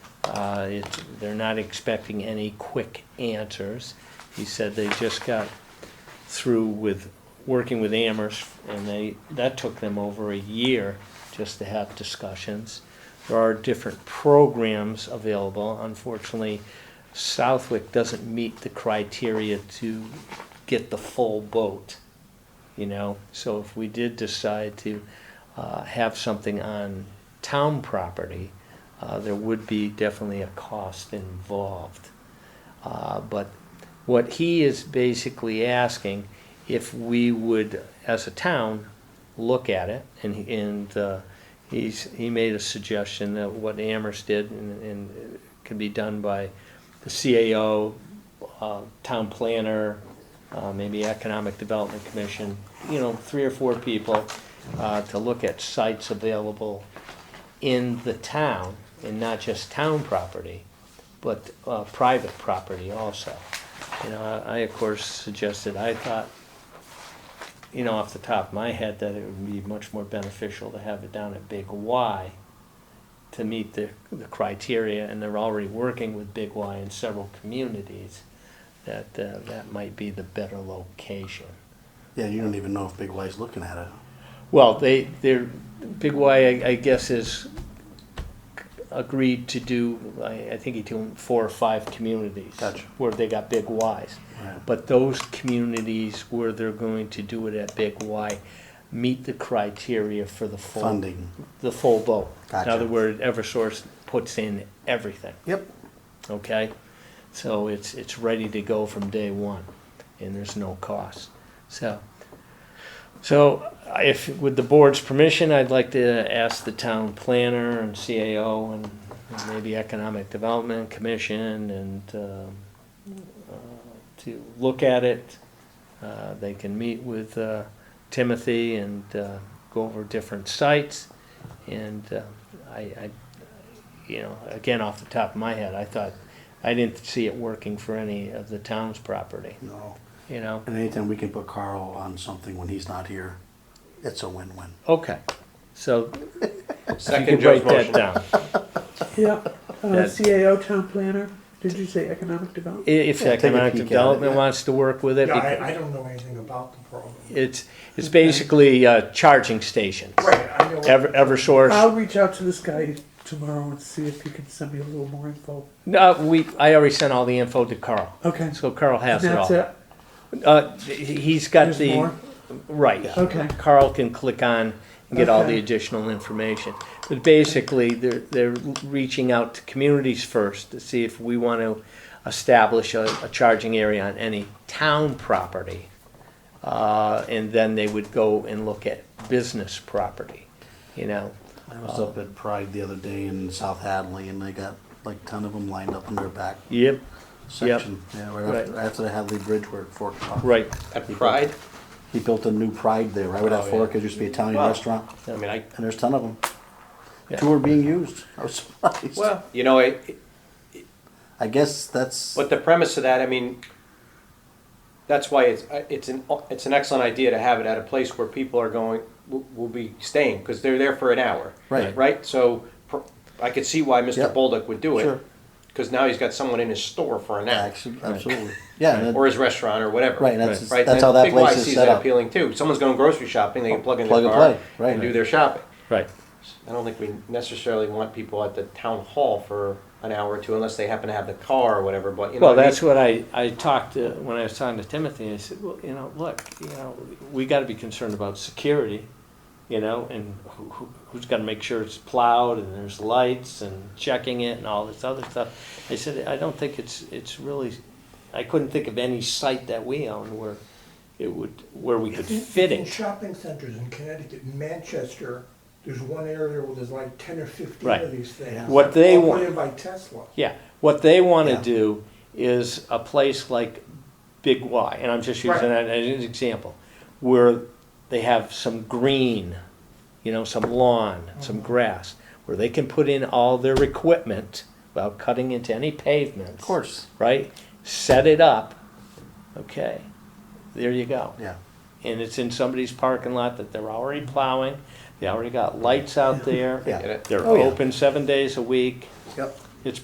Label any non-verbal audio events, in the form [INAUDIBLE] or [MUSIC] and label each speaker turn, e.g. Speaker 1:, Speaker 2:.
Speaker 1: Uh, it- They're not expecting any quick answers. He said they just got through with working with Amherst, and they, that took them over a year just to have discussions. There are different programs available. Unfortunately, Southwick doesn't meet the criteria to get the full boat, you know? So if we did decide to uh, have something on town property, uh, there would be definitely a cost involved. Uh, But what he is basically asking, if we would, as a town, look at it, and, he- and uh, he's, he made a suggestion that what Amherst did and, and could be done by the CAO, uh, town planner, uh, maybe Economic Development Commission, you know, three or four people, uh, to look at sites available in the town, and not just town property, but uh, private property also. You know, I, I, of course suggested, I thought, you know, off the top of my head, that it would be much more beneficial to have it down at Big Y to meet the, the criteria, and they're already working with Big Y in several communities, that, uh, that might be the better location.
Speaker 2: Yeah, you don't even know if Big Y's looking at it.
Speaker 1: Well, they, they're, Big Y, I I guess, has agreed to do, I, I think he doing four or five communities.
Speaker 2: Gotcha.
Speaker 1: Where they got Big Ys.
Speaker 2: Right.
Speaker 1: But those communities where they're going to do it at Big Y meet the criteria for the full.
Speaker 2: Funding.
Speaker 1: The full vote.
Speaker 2: Gotcha.
Speaker 1: In other words, Eversource puts in everything
Speaker 2: Yep.
Speaker 1: okay? So it's, it's ready to go from day one, and there's no cost. So, so if, with the board's permission, I'd like to ask the town planner and CAO and maybe Economic Development Commission and, um, uh, to look at it. Uh, They can meet with uh, Timothy and uh, go over different sites. And uh, I, I you know, again, off the top of my head, I thought, I didn't see it working for any of the town's property,
Speaker 2: No.
Speaker 1: you know?
Speaker 2: And anytime we can put Carl on something when he's not here, it's a win-win.
Speaker 1: Okay, so you
Speaker 3: Second
Speaker 1: could
Speaker 3: Joe's
Speaker 1: write that
Speaker 3: motion.
Speaker 1: down.
Speaker 4: Yeah, uh,
Speaker 1: That-
Speaker 4: CAO town planner, did you say economic
Speaker 1: I-
Speaker 4: development?
Speaker 1: If
Speaker 2: Yeah, take a
Speaker 1: economic
Speaker 2: peek at it,
Speaker 1: development
Speaker 2: yeah.
Speaker 1: wants to work with it,
Speaker 5: Yeah,
Speaker 1: because
Speaker 5: I, I don't know anything about the program.
Speaker 1: it's, it's basically uh, charging stations.
Speaker 5: Right, I know.
Speaker 1: Ever,
Speaker 4: I'll
Speaker 1: Eversource,
Speaker 4: reach out to this guy tomorrow and see if he can send me a little more info.
Speaker 1: no, we, I already sent all the info to Carl,
Speaker 4: Okay,
Speaker 1: so Carl has it
Speaker 4: that's
Speaker 1: all.
Speaker 4: it,
Speaker 1: Uh, he- He's got
Speaker 4: there's
Speaker 1: the,
Speaker 4: more?
Speaker 1: right.
Speaker 4: Okay,
Speaker 1: Carl can click on and get all the
Speaker 4: Okay.
Speaker 1: additional information. But basically, they're, they're reaching out to communities first to see if we want to establish a, a charging area on any town property. Uh, and then they would go and look at business property, you know?
Speaker 2: I was up at Pride the other day in South Hadley, and they got like ten of them lined up in their back
Speaker 1: Yep.
Speaker 2: section. Yeah, right, After,
Speaker 1: Right.
Speaker 2: after the Hadley Bridge where it forked off.
Speaker 1: Right.
Speaker 3: At Pride,
Speaker 2: He built a new Pride there, right where that
Speaker 3: Oh, yeah.
Speaker 2: fork is. Used to be an Italian
Speaker 3: Wow.
Speaker 2: restaurant,
Speaker 3: I mean, I,
Speaker 2: and there's ten of them.
Speaker 1: Yeah.
Speaker 2: Two are being used. [LAUGHS] I was surprised.
Speaker 3: well, you know, it, it-
Speaker 2: I guess that's
Speaker 3: but the premise of that, I mean, that's why it's, I- it's an, it's an excellent idea to have it at a place where people are going, will, will be staying, because they're there for an hour.
Speaker 2: Right.
Speaker 3: Right, so pr- I could see why Mr.
Speaker 2: Yep.
Speaker 3: Bolduc would do
Speaker 2: Sure.
Speaker 3: it, because now he's got someone in his store for an hour,
Speaker 2: Actu- absolutely yeah. and it-
Speaker 3: or his restaurant, or whatever.
Speaker 2: Right, that's
Speaker 3: Right,
Speaker 2: that's
Speaker 3: then
Speaker 2: how that
Speaker 3: Big Y
Speaker 2: place is
Speaker 3: sees
Speaker 2: set
Speaker 3: that
Speaker 2: up.
Speaker 3: appealing too, someone's going grocery shopping, they can plug in
Speaker 2: Plug
Speaker 3: their
Speaker 2: and
Speaker 3: car
Speaker 2: play, right.
Speaker 3: and do their shopping.
Speaker 1: Right.
Speaker 3: I don't think we necessarily want people at the town hall for an hour or two unless they happen to have the car or whatever, but you know.
Speaker 1: Well,
Speaker 3: what I mean?
Speaker 1: that's what I, I talked to, when I was talking to Timothy, I said, well, you know, look, you know, we gotta be concerned about security, you know, and who, who- who's gonna make sure it's plowed and there's lights and checking it and all this other stuff. I said, I don't think it's, it's really, I couldn't think of any site that we own where it would, where we could fit
Speaker 5: In
Speaker 1: it.
Speaker 5: shopping centers in Connecticut, Manchester, there's one area where there's like ten or fifteen
Speaker 1: Right.
Speaker 5: of these things.
Speaker 1: What they
Speaker 5: All put
Speaker 1: want-
Speaker 5: in by Tesla.
Speaker 1: Yeah, what they wanna
Speaker 2: Yeah.
Speaker 1: do is a place like Big Y, and I'm just using that as an example, where they have some green, you know, some lawn,
Speaker 2: Mm-hmm.
Speaker 1: some grass, where they can put in all their equipment without cutting into any pavements.
Speaker 2: of course.
Speaker 1: Right? Set it up, okay, there you go.
Speaker 2: Yeah.
Speaker 1: And it's in somebody's parking lot that they're already plowing, they already got lights out there.
Speaker 2: Yeah.
Speaker 3: Get it?
Speaker 1: They're
Speaker 2: Oh, yeah.
Speaker 1: open seven days a week.
Speaker 2: Yep.